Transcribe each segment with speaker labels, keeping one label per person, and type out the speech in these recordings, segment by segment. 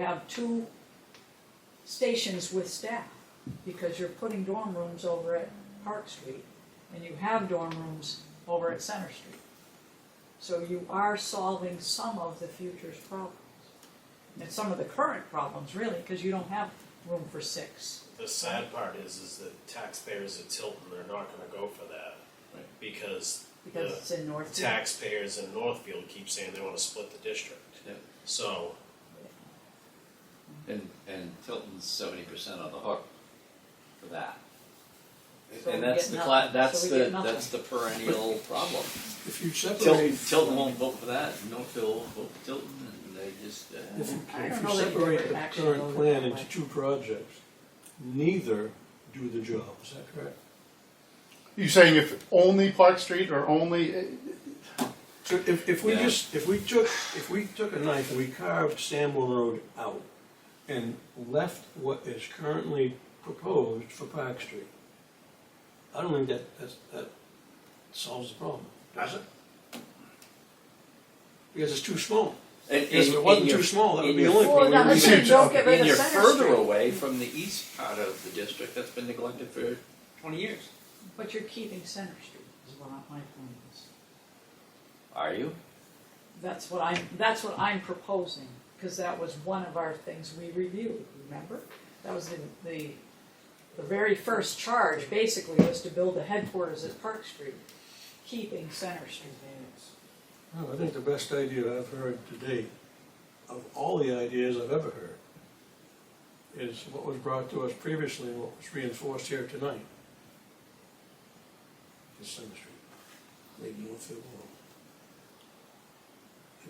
Speaker 1: have two stations with staff, because you're putting dorm rooms over at Park Street, and you have dorm rooms over at Center Street. So you are solving some of the future's problems, and some of the current problems, really, because you don't have room for six.
Speaker 2: The sad part is, is that taxpayers at Tilton are not gonna go for that. Because
Speaker 1: Because it's in North.
Speaker 2: taxpayers in Northfield keep saying they wanna split the district.
Speaker 3: Yeah.
Speaker 2: So,
Speaker 3: And, and Tilton's seventy percent on the hook for that.
Speaker 1: So
Speaker 3: And
Speaker 1: we
Speaker 3: that's
Speaker 1: get
Speaker 3: the,
Speaker 1: nothing.
Speaker 3: cla- that's
Speaker 1: So we
Speaker 3: the,
Speaker 1: get nothing.
Speaker 3: that's the perennial problem.
Speaker 4: If you
Speaker 3: Tilton,
Speaker 4: separate,
Speaker 3: Tilton won't vote for that, Northfield won't vote for Tilton, and they just, uh,
Speaker 4: if you,
Speaker 1: I don't
Speaker 4: if you
Speaker 1: know that you
Speaker 4: separate
Speaker 1: ever
Speaker 4: the
Speaker 1: actually
Speaker 4: current
Speaker 1: voted
Speaker 4: plan
Speaker 1: that
Speaker 4: into
Speaker 1: way.
Speaker 4: two projects, neither do the job, is that correct?
Speaker 5: You saying if only Park Street or only?
Speaker 4: So if, if we
Speaker 3: Yeah.
Speaker 4: just, if we took, if we took a knife and we carved Sample Road out and left what is currently proposed for Park Street, I don't think that, that's, that solves the problem, does it? Because it's too small.
Speaker 3: and,
Speaker 4: Because if
Speaker 3: and-
Speaker 4: it wasn't
Speaker 3: and
Speaker 4: too
Speaker 3: you're-
Speaker 4: small, that would
Speaker 3: and
Speaker 4: be the
Speaker 3: you're
Speaker 4: only
Speaker 1: Well,
Speaker 4: problem.
Speaker 1: now,
Speaker 4: we
Speaker 1: listen,
Speaker 4: would
Speaker 1: don't
Speaker 4: do.
Speaker 1: get rid
Speaker 3: And
Speaker 1: of
Speaker 3: you're
Speaker 1: Center
Speaker 3: further
Speaker 1: Street,
Speaker 3: away from the east part of the district that's been neglected for twenty years.
Speaker 1: but you're keeping Center Street, is what I- my point is.
Speaker 3: Are you?
Speaker 1: That's what I'm, that's what I'm proposing, because that was one of our things we reviewed, remember? That was the, the, the very first charge, basically, was to build the headquarters at Park Street, keeping Center Street.
Speaker 4: No, I think the best idea I've heard to date, of all the ideas I've ever heard, is what was brought to us previously and what was reinforced here tonight. Is Center Street, Lake Northfield Road.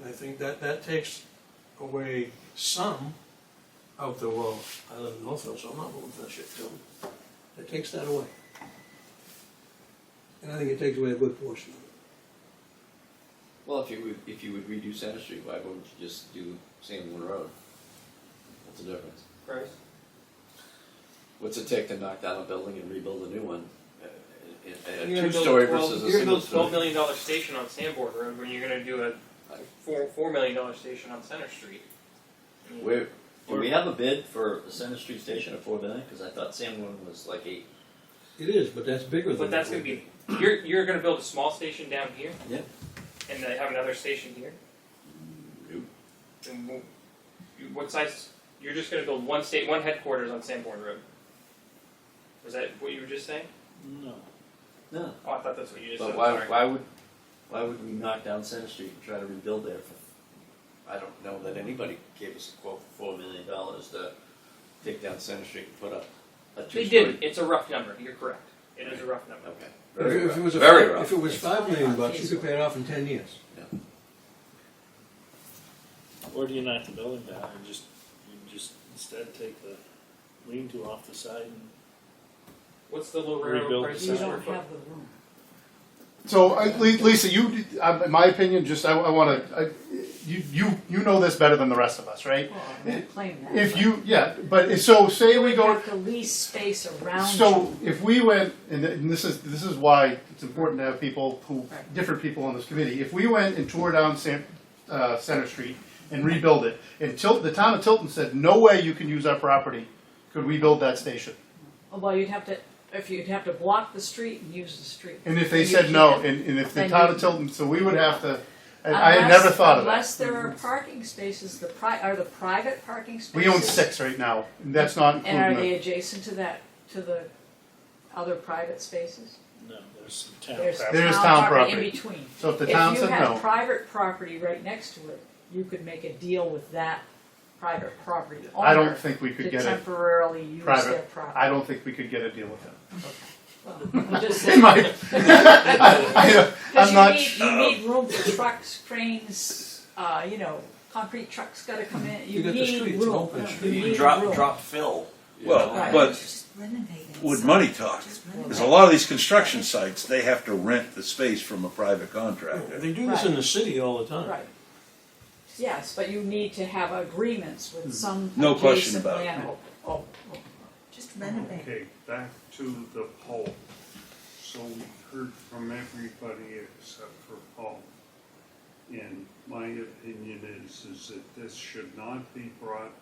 Speaker 4: And I think that, that takes away some of the, well, I live in Northfield, so I'm not voting for that shit too. It takes that away. And I think it takes away a good portion of it.
Speaker 3: Well, if you would, if you would redo Center Street, why wouldn't you just do Sanborn Road? What's the difference?
Speaker 6: Price?
Speaker 3: What's it take to knock down a building and rebuild a new one? Uh, A, a
Speaker 6: You're gonna build
Speaker 3: two-story
Speaker 6: a twelve-
Speaker 3: versus a
Speaker 6: You're gonna build a
Speaker 3: single-story.
Speaker 6: twelve million dollar station on Sanborn Road when you're gonna do a
Speaker 3: Like-
Speaker 6: four, four million dollar station on Center Street. I mean,
Speaker 3: Where, do we have a bid for a Center Street station at four million? Because I thought Sanborn was like eight.
Speaker 4: It is, but that's bigger than.
Speaker 6: But that's
Speaker 4: what
Speaker 6: gonna
Speaker 4: we
Speaker 6: be, you're, you're gonna build a small station down here?
Speaker 3: Yeah.
Speaker 6: And then have another station here?
Speaker 3: Nope.
Speaker 6: And wh- you- what size, you're just gonna build one state, one headquarters on Sanborn Road? Was that what you were just saying?
Speaker 3: No. No,
Speaker 6: Oh, I thought that's what you just said,
Speaker 3: but why,
Speaker 6: sorry.
Speaker 3: why would, why would we knock down Center Street and try to rebuild there for, I don't know that anybody gave us a quote for four million dollars to take down Center Street and put up a
Speaker 6: They
Speaker 3: two-story.
Speaker 6: did, it's a rough number, you're correct. It is a rough number.
Speaker 3: Okay.
Speaker 4: If
Speaker 3: Very
Speaker 4: it-
Speaker 3: rough.
Speaker 4: if it was, a-
Speaker 3: Very rough.
Speaker 4: if it was five million bucks, you could pay it off in ten years.
Speaker 7: Or do you knock the building down and just, you just instead take the lean-to off the side and
Speaker 6: What's the low railroad
Speaker 7: Rebuild
Speaker 6: price
Speaker 1: You
Speaker 6: per
Speaker 7: the
Speaker 6: square
Speaker 1: don't
Speaker 6: foot?
Speaker 1: have the room.
Speaker 5: So I- Li- Lisa, you, I- in my opinion, just I, I want to. You, you, you know this better than the rest of us, right?
Speaker 1: Well, I'm gonna Oh, claim that.
Speaker 5: If you, yeah, but so say we
Speaker 1: You
Speaker 5: go.
Speaker 1: have to lease space around
Speaker 5: So
Speaker 1: you.
Speaker 5: if we went, and th- and this is this is why it's important to have people who
Speaker 1: Right.
Speaker 5: different people on this committee. If we went and tore down San, uh, Center Street and rebuild it, and Tilton, the town of Tilton said, "No way, you can use our property." Could we build that station?
Speaker 1: Although Oh, you'd have to, if you'd have to block the street and use the street.
Speaker 5: And if they
Speaker 1: You
Speaker 5: said no,
Speaker 1: can't.
Speaker 5: and, and if
Speaker 1: Then
Speaker 5: the
Speaker 1: you-
Speaker 5: town of Tilton, so we would have to, and I had
Speaker 1: Unless-
Speaker 5: never thought of that.
Speaker 1: Unless there are parking spaces, the pri, are the private parking spaces.
Speaker 5: We own six right now, and that's not
Speaker 1: And are
Speaker 5: including
Speaker 1: they
Speaker 5: the,
Speaker 1: adjacent to that, to the other private spaces?
Speaker 7: no, there's some town
Speaker 1: There's
Speaker 7: property.
Speaker 5: There's town
Speaker 1: In
Speaker 5: property.
Speaker 1: between.
Speaker 5: so if the
Speaker 1: If
Speaker 5: town
Speaker 1: you
Speaker 5: said
Speaker 1: had
Speaker 5: no,
Speaker 1: private property right next to it, you could make a deal with that private property
Speaker 5: I
Speaker 1: owner
Speaker 5: don't think we could
Speaker 1: to
Speaker 5: get it,
Speaker 1: temporarily use
Speaker 5: private.
Speaker 1: their
Speaker 5: I
Speaker 1: property.
Speaker 5: don't think we could get a deal with them.
Speaker 1: I'm just
Speaker 5: In
Speaker 1: saying,
Speaker 5: my, I, I,
Speaker 1: because
Speaker 5: I'm
Speaker 1: you
Speaker 5: not,
Speaker 1: need, you need room for trucks, cranes, uh, you know, concrete trucks gotta come in, you
Speaker 4: You got the
Speaker 1: need
Speaker 4: streets, it's an
Speaker 1: room,
Speaker 4: open
Speaker 1: you
Speaker 4: street.
Speaker 1: need room.
Speaker 3: Drop, drop fill. you
Speaker 8: Well,
Speaker 3: know?
Speaker 1: Right.
Speaker 8: but
Speaker 9: Just renovate it.
Speaker 8: would money talk?
Speaker 9: Just
Speaker 8: Because
Speaker 9: renovate
Speaker 8: a lot of these construction sites, they have to rent the space from a private contractor.
Speaker 4: They do this in the city all the time.
Speaker 1: Right. Yes, but you need to have agreements
Speaker 5: Hmm.
Speaker 1: with some.
Speaker 8: No question
Speaker 1: adjacent
Speaker 8: about it.
Speaker 1: landowner. Oh, oh.
Speaker 9: it. Just renovate it.
Speaker 10: Okay, back to the poll. So we heard from everybody except for Paul. And my opinion is, is that this should not be brought